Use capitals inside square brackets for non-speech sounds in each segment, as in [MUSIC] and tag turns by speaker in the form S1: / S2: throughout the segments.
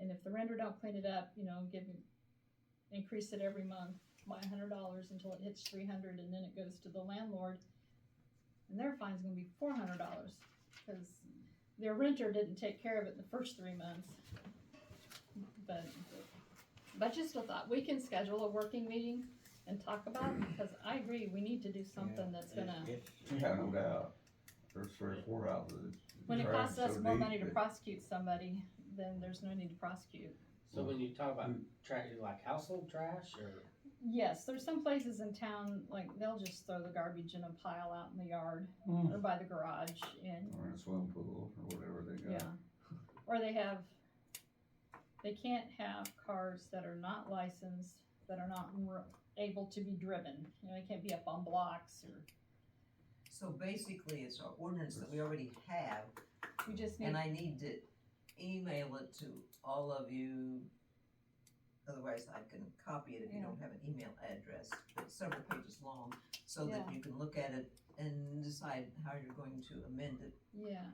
S1: and if the renter don't clean it up, you know, give, increase it every month by a hundred dollars until it hits three hundred, and then it goes to the landlord. And their fine's gonna be four hundred dollars, cause their renter didn't take care of it the first three months. But, but just a thought, we can schedule a working meeting and talk about, it, because I agree, we need to do something that's gonna.
S2: Yeah, no doubt. There's three or four houses.
S1: When it costs us more money to
S2: process.
S1: prosecute somebody, then there's no need to prosecute.
S3: So when you talk about trash, like household trash or?
S1: Yes, there's some places in town, like, they'll just throw the garbage in a pile out in the yard or by the garage and,
S2: Or in a swimming pool or whatever they
S1: yeah.
S2: got.
S1: Or they have, they can't have cars that are not licensed, that are not r- able to be driven. You know, they can't be up on blocks or,
S4: So basically, it's our ordinance that we already have,
S1: we just need,
S4: and I need to email it to all of you. Otherwise, I can copy it if you don't have an email address, but it's several pages long, so that
S1: Yeah.
S4: you can look at it and decide how you're going to amend it.
S1: yeah.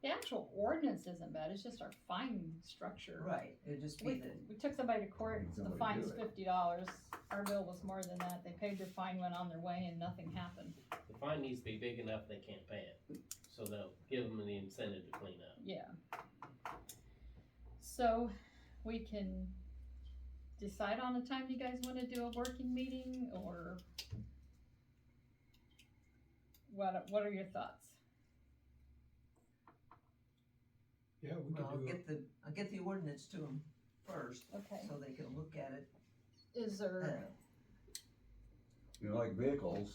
S1: The actual ordinance isn't bad, it's just our fine structure.
S4: Right, it'd just be
S1: We,
S4: the,
S1: we took somebody to court, the
S2: Somebody
S1: fine's
S2: do it.
S1: fifty dollars, our bill was more than that, they paid their fine, went on their way, and nothing happened,
S3: The fine needs to be big enough they can't pay it, so they'll give them the incentive to clean up.
S1: yeah. So, we can decide on a time you guys wanna do a working meeting, or what, what are your thoughts?
S5: Yeah, we
S4: well, I'll
S5: could do it.
S4: get the, I'll get the ordinance to them first,
S1: Okay,
S4: so they can look at it.
S1: is
S4: Uh,
S1: there,
S2: You know, like vehicles,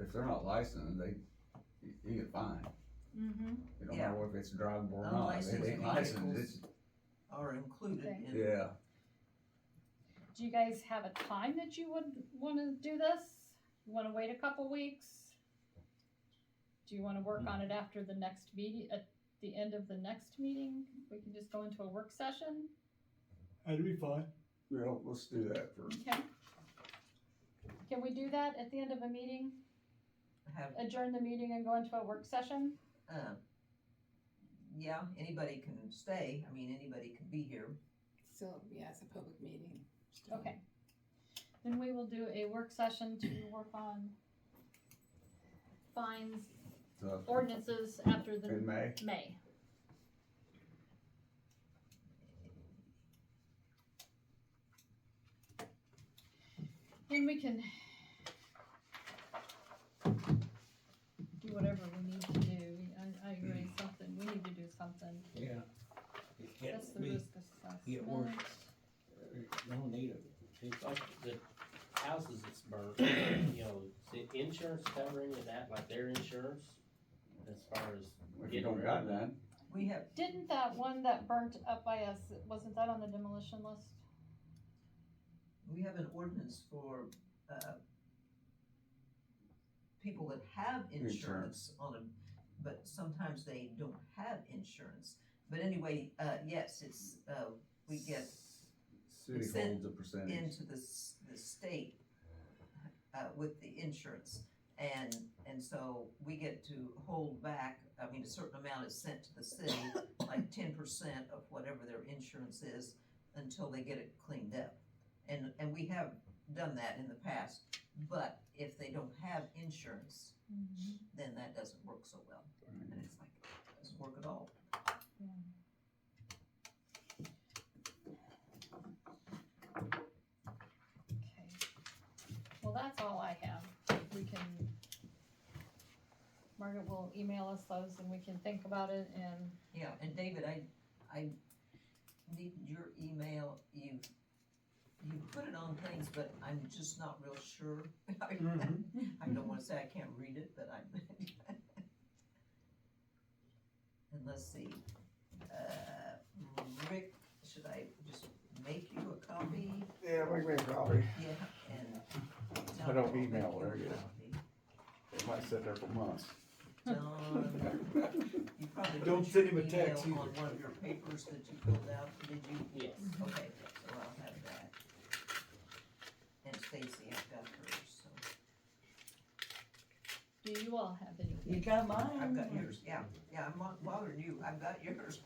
S2: if they're not licensed, they, you- you get fined.
S1: mm-hmm,
S2: It don't
S4: Yeah.
S2: matter if it's drivable or not. If it ain't
S4: Unlicensed
S2: licensed, it's,
S4: Are included
S1: Okay.
S4: in.
S2: yeah.
S1: do you guys have a time that you would wanna do this? Wanna wait a couple weeks? Do you wanna work on it after the next meeting, at the end of the next meeting? We can just go into a work session,
S5: That'd be fine.
S2: Yeah, let's do that first.
S1: okay? Can we do that at the end of a meeting,
S4: Have
S1: adjourn the meeting and go into a work session?
S4: Um, yeah, anybody can stay, I mean, anybody can be here.
S6: Still, yeah, it's a public meeting. still.
S1: Okay. Then we will do a work session to work on fines,
S2: So,
S1: ordinances after
S2: in
S1: the
S2: May,
S1: May. Then we can do whatever we need to do. I, I
S7: Hmm.
S1: agree, something, we need to do something.
S7: Yeah. It
S1: That's
S7: can't
S1: the
S7: be,
S1: risk
S7: get
S1: assessment.
S7: worse. you don't need it.
S3: It's like the houses that's burnt, you know, is the insurance covering of that, like their insurance? As far as,
S2: if you don't got none,
S4: We have,
S1: Didn't that one that burnt up by us, wasn't that on the demolition list?
S4: we have an ordinance for, uh, people that have insurance on them, but sometimes they don't have insurance. But anyway, uh, yes, it's, uh, we get
S2: city
S4: Percent
S2: holds a percentage.
S4: into the, s- the state, uh, with the insurance. And, and so we get to hold back, I mean, a certain amount is sent to the city, like ten percent of whatever their insurance is, until they get it cleaned up. And, and we have done that in the past, but if they don't have insurance, then that doesn't work so well. And it's like, doesn't work at all.
S1: Okay. Well, that's all I have. We can, Margaret will email us those and we can think about it and,
S4: Yeah, and David, I, I need your email, you, you put it on things, but I'm just not real sure. [LAUGHS] I
S5: Mm-hmm.
S4: don't wanna say [LAUGHS] I can't read it, but I'm. [LAUGHS] And let's see, uh, Rick, should I just make you a copy?
S2: Yeah, we may probably,
S4: Yeah, and.
S2: I don't
S4: John will make
S2: email
S4: you a
S2: her, yeah.
S4: copy.
S2: it might sit there for months. [LAUGHS]
S4: John, you probably. put
S5: Don't send him
S4: your
S5: a text
S4: email On
S5: either.
S4: one of your papers that you filled out, did you?
S3: yes.
S4: Okay, so I'll have that. And Stacy, I've got hers, so.
S1: do you all have any?
S8: You got
S4: I've
S8: mine?
S4: got yours, [LAUGHS] yeah, yeah, I'm not bothering you, I've got yours.